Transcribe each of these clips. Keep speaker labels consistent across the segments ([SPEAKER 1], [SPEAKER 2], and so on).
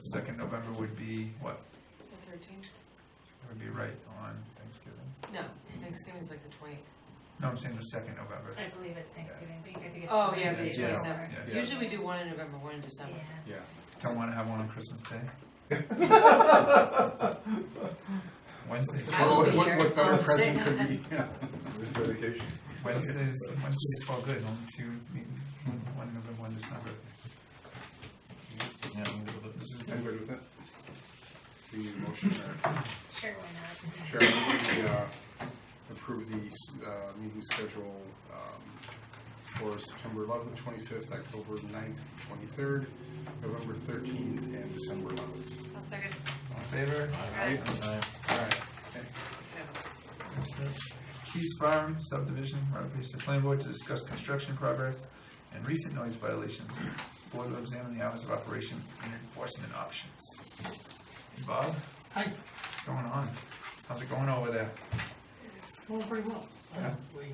[SPEAKER 1] second November would be, what,
[SPEAKER 2] The thirteenth?
[SPEAKER 1] would be right on Thanksgiving?
[SPEAKER 2] No, Thanksgiving's like the twentieth.
[SPEAKER 1] No, I'm saying the second November.
[SPEAKER 3] I believe it's Thanksgiving, but you have to get.
[SPEAKER 2] Oh, yeah,
[SPEAKER 3] the
[SPEAKER 2] the
[SPEAKER 1] Yeah.
[SPEAKER 2] twenty-seventh.
[SPEAKER 1] Yeah,
[SPEAKER 4] Yeah.
[SPEAKER 2] Usually we do one in November, one in December.
[SPEAKER 3] Yeah.
[SPEAKER 4] Yeah.
[SPEAKER 1] don't wanna have one on Christmas Day, Wednesday's,
[SPEAKER 2] I will
[SPEAKER 4] What-
[SPEAKER 2] be
[SPEAKER 4] what-
[SPEAKER 2] here.
[SPEAKER 4] What better
[SPEAKER 2] I'll sit.
[SPEAKER 4] present could be? Yeah. There's dedication.
[SPEAKER 1] Wednesday's, Wednesday's all good, only two, one- one November, one December. Yeah, I'm good with it. this is
[SPEAKER 4] I'm
[SPEAKER 1] good.
[SPEAKER 4] good with that. Do you need a motion or
[SPEAKER 3] Sure, why not?
[SPEAKER 4] Chair, I move we, uh, approve the uh, meeting schedule um, for September 11th, 25th, October 9th, 23rd, November 13th, and December 11th.
[SPEAKER 2] I'll second.
[SPEAKER 1] All in favor?
[SPEAKER 4] Aye. All right. Okay.
[SPEAKER 1] Keys Farm subdivision, ratification of plan board to discuss construction progress and recent noise violations. Board will examine the hours of operation and enforcement options. Bob?
[SPEAKER 5] Hi.
[SPEAKER 1] What's going on? How's it going over there?
[SPEAKER 5] Going pretty well.
[SPEAKER 1] Yeah.
[SPEAKER 5] We, we-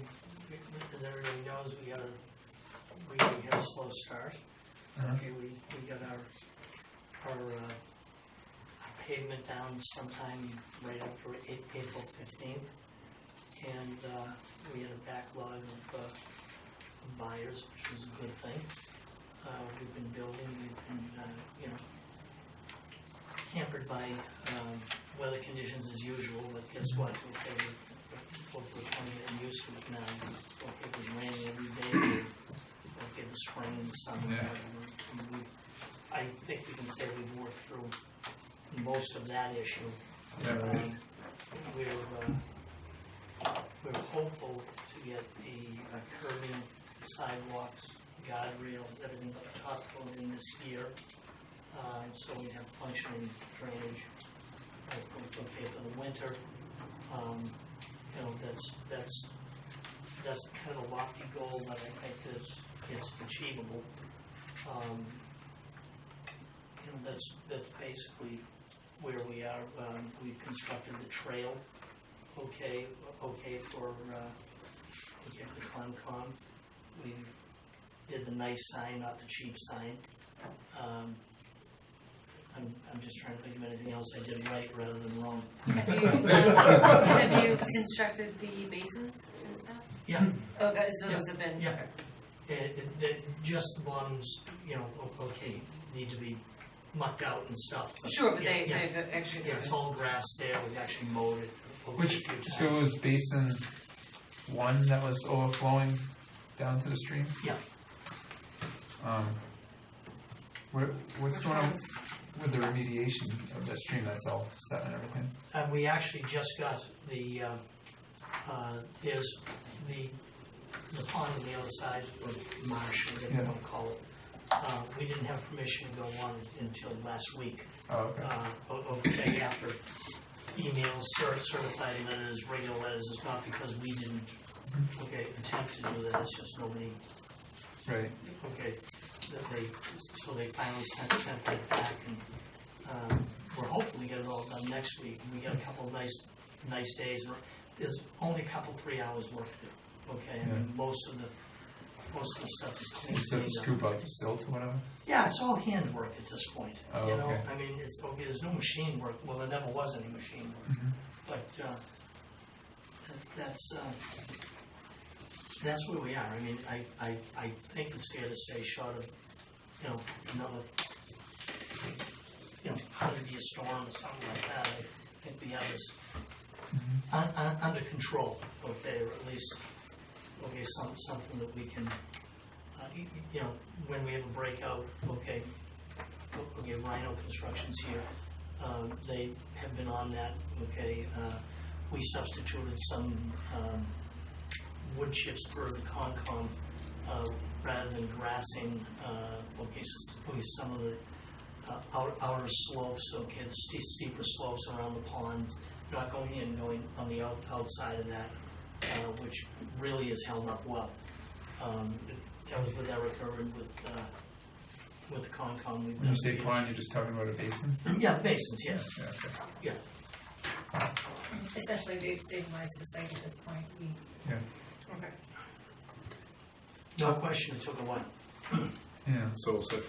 [SPEAKER 5] as everybody knows, we got a, we had a slow start.
[SPEAKER 1] Uh-huh.
[SPEAKER 5] Okay, we, we got our, our uh, our pavement down sometime right after A- April fifteenth. And, uh, we had a backlog of, uh, buyers, which was a good thing. Uh, we've been building, we've been, uh, you know, hampered by, um, weather conditions as usual, but guess what? Okay, we- we're, we're kind of getting used to it now. Okay, it was raining every day, okay, the spring and summer.
[SPEAKER 1] Yeah.
[SPEAKER 5] and we- we- I think we can say we've worked through most of that issue.
[SPEAKER 1] Yeah.
[SPEAKER 5] Um, We're, uh, we're hopeful to get the uh, curbing sidewalks, guardrails, everything up top closing this year. Uh, so we have functioning drainage, uh, okay for the winter. Um, you know, that's, that's, that's kind of a lofty goal, but I think is, is achievable. Um, you know, that's, that's basically where we are, um, we've constructed the trail, okay, okay for, uh, okay for Concom. We did the nice sign, not the cheap sign. Um, I'm, I'm just trying to think of anything else I did right rather than wrong.
[SPEAKER 2] Have you, have you constructed the basins and stuff?
[SPEAKER 5] Yeah,
[SPEAKER 2] Okay, so those have been,
[SPEAKER 5] Uh, yeah. It, it- it- just the bottoms, you know, o- okay, need to be mucked out and stuff.
[SPEAKER 2] sure, but
[SPEAKER 5] yeah,
[SPEAKER 2] they,
[SPEAKER 5] yeah.
[SPEAKER 2] they've actually.
[SPEAKER 5] Yeah, it's all grass there, we actually mowed it. okay a
[SPEAKER 1] Which,
[SPEAKER 5] few times.
[SPEAKER 1] so it was basin one that was overflowing down to the stream?
[SPEAKER 5] Yeah.
[SPEAKER 1] Um, where, what's
[SPEAKER 2] Which
[SPEAKER 1] going on
[SPEAKER 2] ones?
[SPEAKER 1] with the remediation of the stream that's all set and everything?
[SPEAKER 5] And we actually just got the, uh, uh, there's the, the pond on the other side, or marsh, whatever you want to call it. Uh, We didn't have permission to go on until last week,
[SPEAKER 1] Oh, okay.
[SPEAKER 5] uh, o- o- the day after. Emails, cer- certified letters, regular letters, it's not because we didn't, okay, attempt to do that, it's just nobody
[SPEAKER 1] Right,
[SPEAKER 5] Okay, that they, so they finally sent, sent that back and, um, we're hopefully get it all done next week. We got a couple of nice, nice days, and there's only a couple, three hours worth to do, okay? I mean, most of the, most of the stuff is clean.
[SPEAKER 1] you still have to
[SPEAKER 5] cleaned up.
[SPEAKER 1] scoop out the silt or whatever?
[SPEAKER 5] Yeah, it's all handwork at this point,
[SPEAKER 1] Oh,
[SPEAKER 5] you know,
[SPEAKER 1] okay.
[SPEAKER 5] I mean, it's, okay, there's no machine work, well, there never was any machine work.
[SPEAKER 1] Mhm.
[SPEAKER 5] But, uh, that- that's, uh, that's where we are, I mean, I, I, I think it's fair to say short of, you know, another, you know, hundred year storm or something like that, I think the others, un,
[SPEAKER 1] Mm-hmm.
[SPEAKER 5] un, under control, okay, or at least, okay, some, something that we can, uh, y- y- you know, when we have a breakout, okay, o- okay, Rhino Construction's here, um, they have been on that, okay, uh, we substituted some, um, wood chips for the Concom, uh, rather than grassing, uh, okay, s- okay, some of the, uh, outer, outer slopes, okay, the ste- steeper slopes around the ponds, not going in, going on the out, outside of that, uh, which really has held up well. Um, that was with Eric Irvin with, uh, with the Concom. we've
[SPEAKER 1] When you
[SPEAKER 5] done
[SPEAKER 1] say
[SPEAKER 5] the-
[SPEAKER 1] pond, you're just talking about a basin?
[SPEAKER 5] Yeah, basins, yes,
[SPEAKER 1] Yeah, okay.
[SPEAKER 5] yeah.
[SPEAKER 3] Especially they've stabilized the site at this point, we
[SPEAKER 2] Okay.
[SPEAKER 5] No question, it took a while.
[SPEAKER 1] Yeah.
[SPEAKER 4] So set